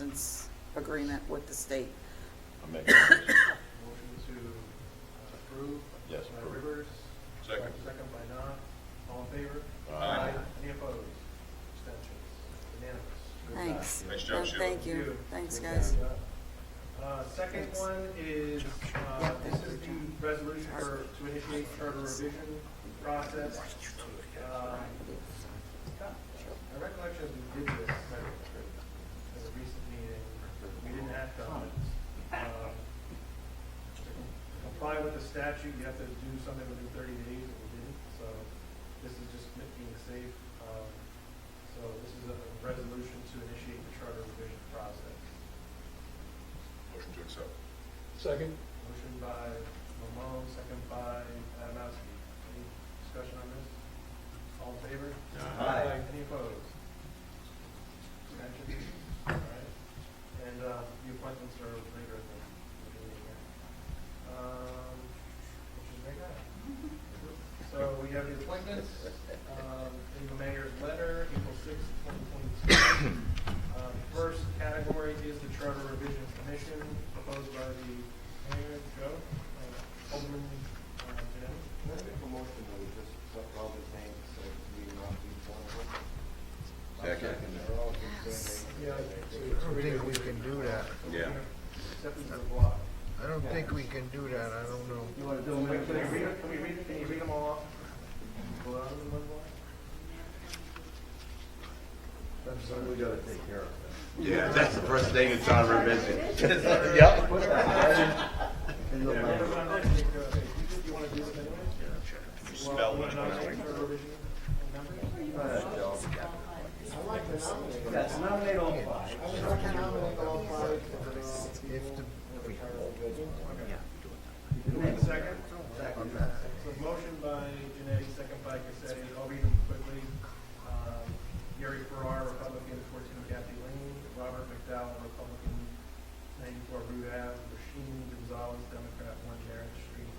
assistance agreement with the state. I make a motion. Motion to uh, approve. Yes, By approve. Rivers. Second. Second by Knopf. All in favor? Aye. Any opposed? Abstentions? Unanimous. Good job. Thanks. Nice job, And Sheila. Thank you. Thanks, Good guys. job. Uh, Second Thanks. one is, uh, Yeah, this thank is you, John. the resolution for, to initiate charter revision process. Um, My recollection is we did this kind of at a recent meeting. We didn't act on it. Um, to Comply with the statute, you have to do something within thirty days, and we didn't, so this is just being safe. Um, So this is a resolution to initiate the charter revision process. Motion to accept. Second? Motion by Mamon, second by Adamowski. Any discussion on this? All in favor? Aye. Any opposed? Abstentions? All right. And uh, the appointments are later in the in the meeting here. Um, which is very good. So we have the appointments um, in the mayor's letter, April sixth, twenty twenty-two. Um, First category is the Charter Revision Commission proposed by the mayor, Joe, uh, Alderman, uh, Jim. Can I make a motion that we just accept all the names, so we do not be one of them? Second. They're all just saying they- Yes. they- I don't think we can do that. So we're Yeah. gonna Accept them to the block. I don't think we can do that, I don't know. You want to do them, can you read, can we read, can you read them all off? Go out in one block? That's something we gotta take care of. Yeah, that's the first thing that's on our visit. Put that right in- in the Yeah, letter. put them on, take, uh, you- you wanna do them anyway? Can you Well, spell you when it wanna nominate comes? for revision numbers? All right, Joe. I'd like to nominate. Yes, nominate all five. I would like to nominate all five for the, If the, Second? So motion by Janetti, second by Cassetti, I'll read them quickly. Um, Gary Farrar, Republican, fourteen Kathy Lane, Robert McDowell, Republican, ninety-four Rue Ave, Rasheen Gonzalez, Democrat, one Merritt Street,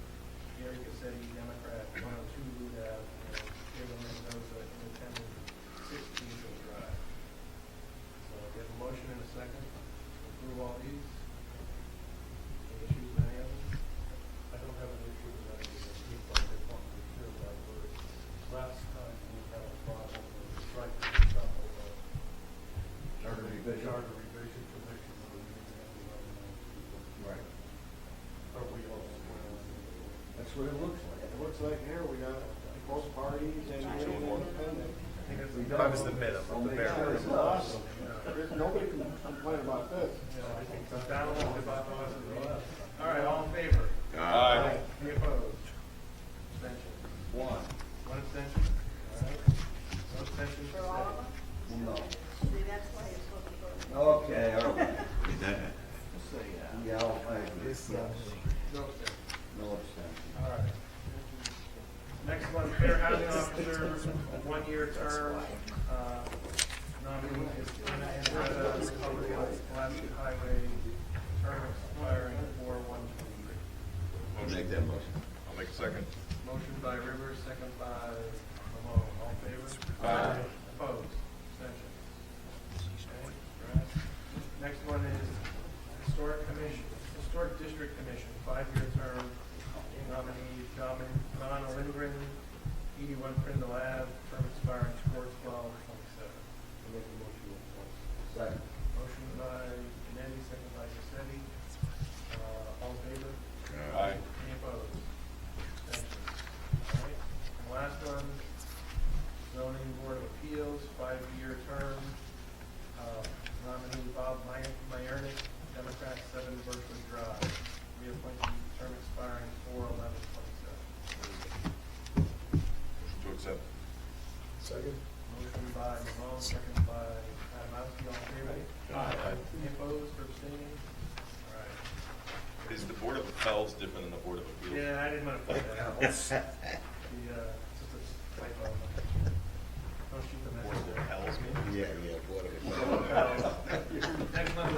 Gary Cassetti, Democrat, one oh two Rue Ave, and Kevin Mendoza, Independent, six Angel Drive. So we have a motion and a second, approve all these. Any issues with any of them? I don't have an issue with that, because people like to want to hear that word. Last time we had a problem with striking the top of the. Charter revision. Charter revision commission, or we didn't have the right amount of people. Right. Are we all square on that? That's what it looks like. It looks like here, we got both parties and independent. I think that's. We Yeah, done. I We'll make sure it's awesome. There's- Nobody can complain about this. think the battle of the bylaws is the left. All right, all in favor? Aye. Any opposed? Abstention? One. One abstention? All right. One abstention. for all of them. No. See, that's why it's looking for. Okay, all right. Yeah, I'll pay this, this. uh, No abstention. No extension. All right. Next one, fair housing officer, a one-year term. Uh, Nominee is Anna Andretta, Republican, Pulaski Highway, term expiring four one twenty-three. I'll make that motion. I'll make a second. Motion by Rivers, second by Lamone. All in favor? Aye. Opposed? Abstentions? Okay, alright. Next one is Historic Commission, Historic District Commission, five-year term, nominee Domin- Don Lindgren, eighty-one Prindle Ave, term expiring four twelve twenty-seven. Make a motion to appoint. Second. Motion by Janetti, second by Cassetti. Uh, all in favor? Aye. Any opposed? Abstentions? All right. And last one, zoning board of appeals, five-year term, uh, nominee Bob May- Mayernick, Democrat, seven Berkeley Drive, reappointment, term expiring four eleven twenty-seven. Motion to accept. second? Motion by Mamon, second by Adamowski, all in favor? Aye. Any opposed or abstaining? All right. Is the Board of Appeals different than the Board of Appeals? Yeah, I didn't want to put that out. The, uh, just a typo. Don't shoot the Board of messenger. Appeals, maybe? Yeah, yeah, whatever. Next month, Uh, Uh,